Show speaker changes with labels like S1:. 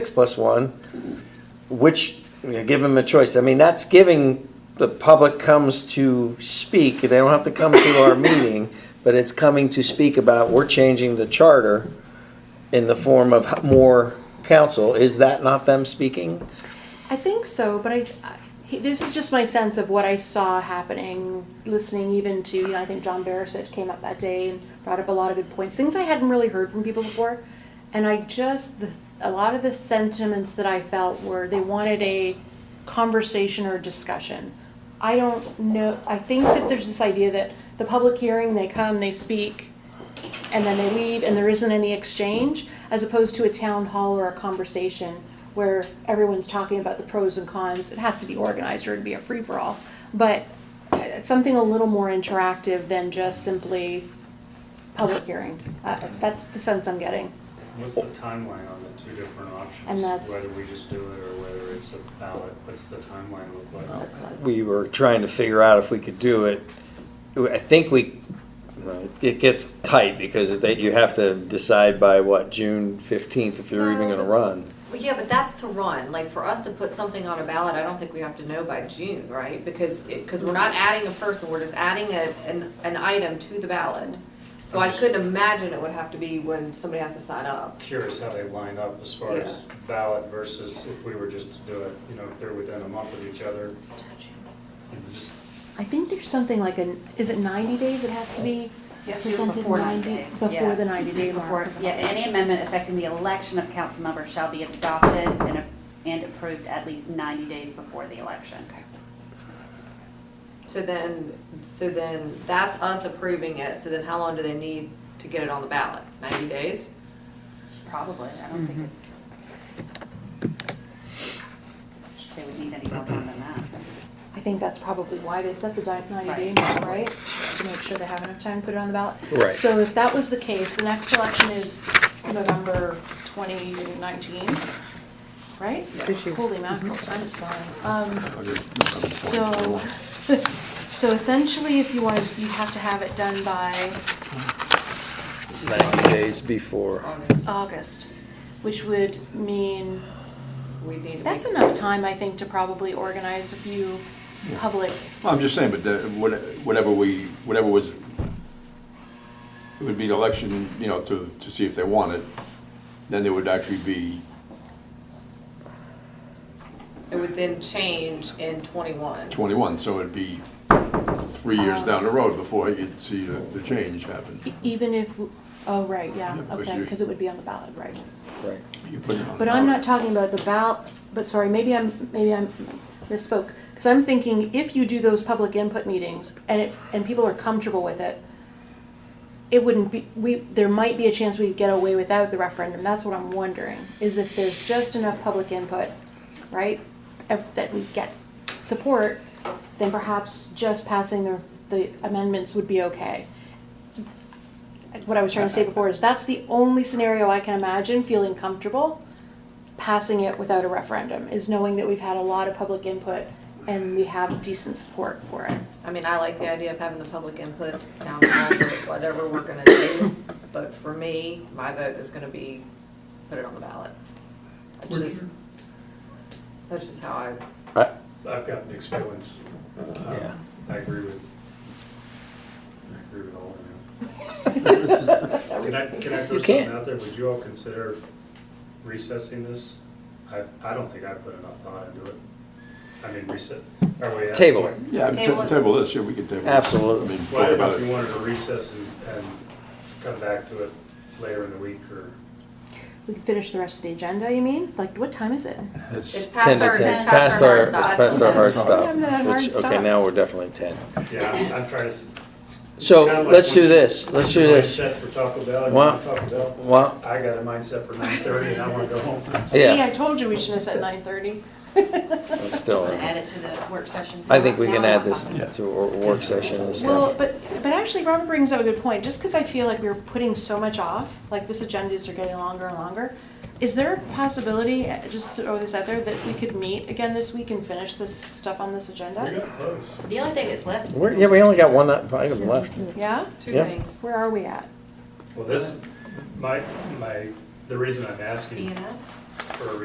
S1: six plus one, which, you know, give them a choice. I mean, that's giving, the public comes to speak, they don't have to come to our meeting, but it's coming to speak about, we're changing the charter in the form of h- more council. Is that not them speaking?
S2: I think so, but I, I- he- this is just my sense of what I saw happening, listening even to, you know, I think John Barisic came up that day and brought up a lot of good points, things I hadn't really heard from people before. And I just, the, a lot of the sentiments that I felt were they wanted a conversation or discussion. I don't know, I think that there's this idea that the public hearing, they come, they speak, and then they leave and there isn't any exchange as opposed to a town hall or a conversation where everyone's talking about the pros and cons it has to be organized or it'd be a free-for-all but uh, something a little more interactive than just simply public hearing uh, that's the sense i'm getting
S3: What's the timeline on the two different options?
S2: And that's-
S3: Whether we just do it or whether it's a ballot, what's the timeline look like?
S1: We were trying to figure out if we could do it. I think we, well, it gets tight because they, you have to decide by what, June fifteenth, if you're even gonna run.
S4: Well, yeah, but that's to run, like for us to put something on a ballot, I don't think we have to know by June, right? Because, because we're not adding a person, we're just adding a, an, an item to the ballot. So I couldn't imagine it would have to be when somebody has to sign up.
S3: Curious how they line up as far as ballot versus if we were just to do it, you know, if they're within a month of each other. you know, just-
S2: i think there's something like an is it 90 days it has to be
S5: You have to do it
S2: presented
S5: before
S2: 90
S5: 90 days,
S2: before
S5: yeah.
S2: the 90 day mark
S5: Before- Yeah, any amendment affecting the election of council members shall be adopted and, a- and approved at least 90 days before the election.
S4: So then, so then that's us approving it, so then how long do they need to get it on the ballot? Ninety days?
S5: Probably, I don't think it's.
S2: Mm-hmm.
S5: They would need any more time than that.
S2: I think that's probably why they set the di- 90 day
S5: Right.
S2: mark, right? To make sure they have enough time to put it on the ballot.
S1: Right.
S2: So if that was the case, the next election is November 2019, right? Holy mackerel, time is flying. Um, So, so essentially, if you want, you have to have it done by
S1: Ninety days before.
S4: August.
S2: August, which would mean,
S4: We need to be.
S2: that's enough time, I think, to probably organize a few public,
S6: Well, I'm just saying, but the, what- whatever we, whatever was, it would be the election, you know, to, to see if they want it, then there would actually be,
S4: It would then change in twenty-one.
S6: 21, so it'd be three
S2: Um,
S6: years down the road before you'd see the, the change happen.
S2: e- even if, oh, right, yeah,
S6: Yeah, 'cause
S2: okay,
S6: you-
S2: because it would be on the ballot, right?
S1: Right.
S6: You put it on
S2: But I'm not
S6: ballot.
S2: talking about the ballot, but sorry, maybe I'm, maybe I'm misspoke. Because I'm thinking if you do those public input meetings and it, and people are comfortable with it, it wouldn't be, we, there might be a chance we could get away without the referendum. That's what I'm wondering, is if there's just enough public input, right? ev- That we get support, then perhaps just passing the, the amendments would be okay what I was trying to say before is that's the only scenario I can imagine feeling comfortable passing it without a referendum is knowing that we've had a lot of public input and we have decent support for it.
S4: I mean, I like the idea of having the public input, town hall, or whatever we're gonna do, but for me, my vote is gonna be, put it on the ballot. That's just, that's just how I,
S3: I've got mixed feelings. Um,
S1: Yeah.
S3: I agree with, I agree with all of you. Can I, can I throw
S1: You can.
S3: something out there? Would you all consider recessing this? I, I don't think I put enough thought into it. I mean, reset, are we? at-
S1: Table it.
S6: Yeah, I'd
S4: Table
S6: ta-
S4: it.
S6: table this, yeah, we could table it.
S1: Absolutely.
S6: I mean,
S3: Well, I
S6: talk
S3: don't know
S6: about
S3: if you
S6: it.
S3: wanted to recess and, and come back to it later in the week or.
S2: We can finish the rest of the agenda, you mean? Like, what time is it?
S1: It's
S4: It's past
S1: ten to
S4: our-
S1: ten.
S4: it's past our hard
S1: It's
S4: stop.
S1: past our hard stop,
S2: Remember that hard
S1: which, okay,
S2: stop.
S1: now we're definitely ten.
S3: Yeah, I'm- I'm trying to. s- it's- it's
S1: So,
S3: kinda like
S1: let's do
S3: once you-
S1: this. Let's do
S3: your
S1: this.
S3: Mindset for Taco Bell, you
S1: Why-
S3: want Taco Bell?
S1: why-
S3: I got a mindset for nine thirty and I wanna go home.
S2: See, I
S1: Yeah,
S2: told you we shouldn't have said nine thirty.
S1: it's still,
S4: add it to the work session.
S1: I think we can add this
S6: Yeah.
S1: to a work session and
S2: Well,
S1: stuff.
S2: but, but actually Robert brings up a good point, just because I feel like we're putting so much off, like this agendas are getting longer and longer. Is there a possibility, uh, just throw this out there, that we could meet again this week and finish this stuff on this agenda?
S3: We got close.
S4: The only thing that's left. is-
S1: We're, yeah, we only got one uh, item left.
S2: Yeah?
S4: Two
S1: yeah.
S4: things.
S2: Where are we at?
S3: Well, this, is my, my, the reason I'm
S4: E
S3: asking
S4: and F.
S3: for a